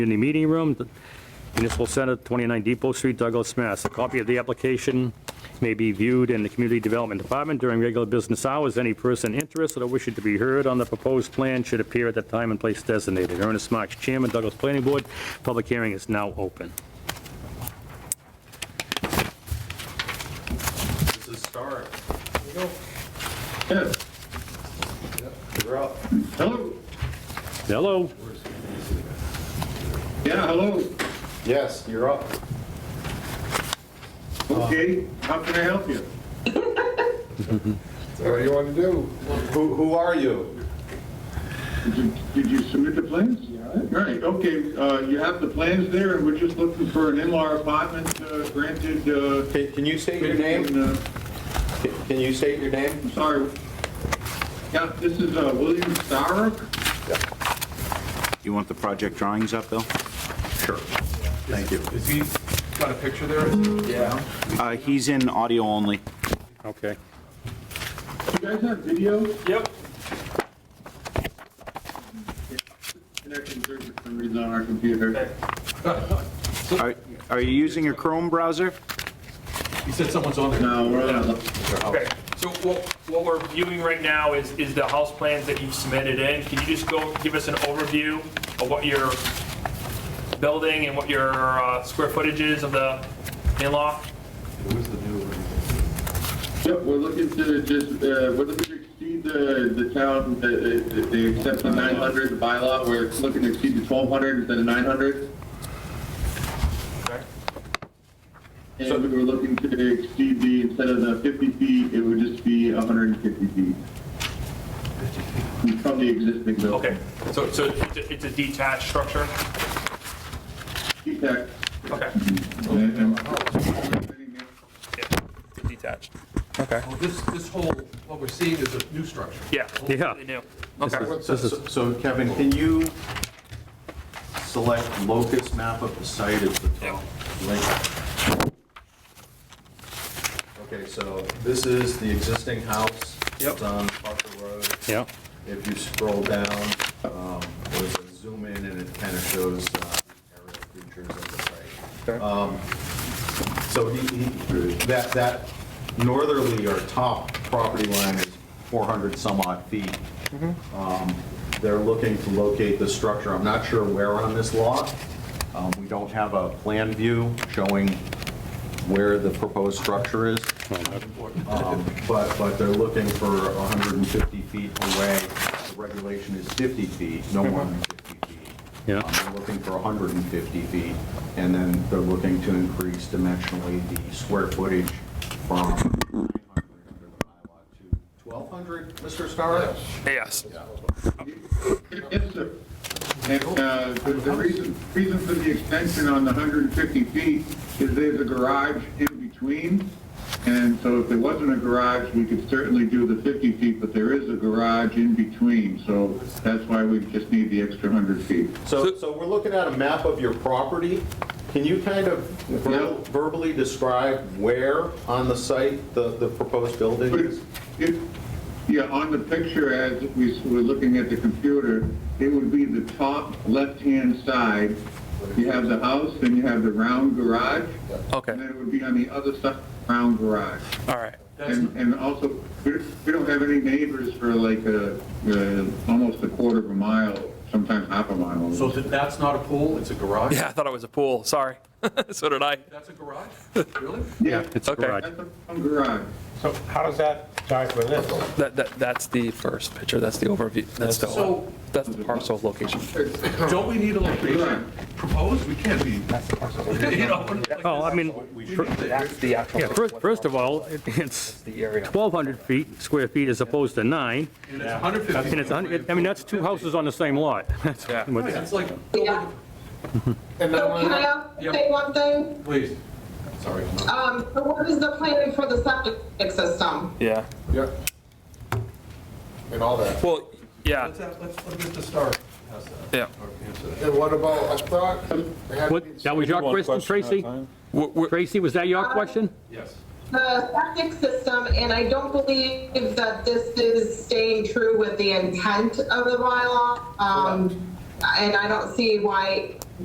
in the meeting room, the Municipal Center, 29 Depot Street, Douglas, Mass. A copy of the application may be viewed in the Community Development Department during regular business hours. Any person interested or wishing to be heard on the proposed plan should appear at the time and place designated. Ernest Marks, Chairman, Douglas Planning Board. Public hearing is now open. This is start. Yes. You're up. Hello? Hello? Yeah, hello? Yes, you're up. Okay, how can I help you? What do you want to do? Who, who are you? Did you, did you submit the plans? Yeah. Right, okay, uh, you have the plans there, and we're just looking for an in-law apartment uh, granted, uh... Can can you state your name? uh, Can you state your name? I'm sorry. Yeah, this is, uh, William Starrock. You want the project drawings up, Bill? Thank you. Is he got a picture there? Is Yeah. Uh, he's in audio only. Okay. You guys have video? Yep. Connecting through for some reason on our computer. Are, are you using a Chrome browser? He said someone's on there. No, we're on. Okay, so what, what we're viewing right now is, is the house plans that you've submitted in. Can you just go, give us an overview of what your building and what your uh, square footage is of the in-law? Yep, we're looking to just, uh, we're looking to exceed the, the town, the, the- the except the 900 the bylaw. We're looking to exceed the 1200 instead of 900. Okay. And we were looking to exceed the, instead of the 50 feet, it would just be 150 feet. From the existing building. Okay, so, so it's a- it's a detached structure? Detached. Okay, And- and- yeah, it's detached. Okay. Well, this, this whole, what we're seeing is a new structure. Yeah. Yeah. They do. Okay, This is- So Kevin, can you select locus map of the site as the top link? Okay, so this is the existing house. Yep. It's on Parker Road. Yeah. If you scroll down, um, there's a zoom in and it kind of shows uh, aerial features of the site. Um, So he, he, that, that northerly or top property line is 400 some odd feet. Um, They're looking to locate the structure. I'm not sure where on this lot. Um, We don't have a plan view showing where the proposed structure is. Um, But, but they're looking for 150 feet away. The regulation is 50 feet, no more than 50 feet. Yeah. Um, They're looking for 150 feet, and then they're looking to increase dimensionally the square footage from 900 under the bylaw to 1,200, Mr. Starr? yes. Yes, sir. And uh, the the reason, reason for the extension on the 150 feet is there's a garage in between. And so if there wasn't a garage, we could certainly do the 50 feet, but there is a garage in between. So that's why we just need the extra 100 feet. So, so we're looking at a map of your property. Can you kind of ver- Yeah. verbally describe where on the site the, the proposed building But it's- is? it- Yeah, on the picture as we s- were looking at the computer, it would be the top left-hand side. You have the house, then you have the round garage. Okay. And then it would be on the other side, of the round garage. All right. And, and also, we we don't have any neighbors for like a, uh, almost a quarter of a mile, sometimes half a mile. So that- that's not a pool, it's a garage? Yeah, I thought it was a pool, sorry. So did I. That's a garage? Really? Yeah, It's a Okay. garage. that's a round garage. So how does that jive with this? That, that, that's the first picture, that's the overview, that's the, So- that's the parcel location. Don't we need a location proposed? We can't be, you know. like Oh, I mean, That's the actual. yeah, first, first of all, it- it's The area. 1,200 feet, square feet as opposed to nine. this, And it's 150. And it's, a hundred- I mean, that's two houses on the same lot. That's what- Right, It's like, Yeah. So can I ask- Yep. say one thing? please, sorry. I'm not- Um, so what is the plan for the septic system? Yeah. Yep. And all that. Well, yeah, Let's have, let's, let's get the start. How's that? yeah. Or answer that. And what about, I thought, they had What, that was your question, Tracy? Tracy, was that your question? Yes. The septic system, and I don't believe that this is staying true with the intent of the bylaw. Um, and I don't see why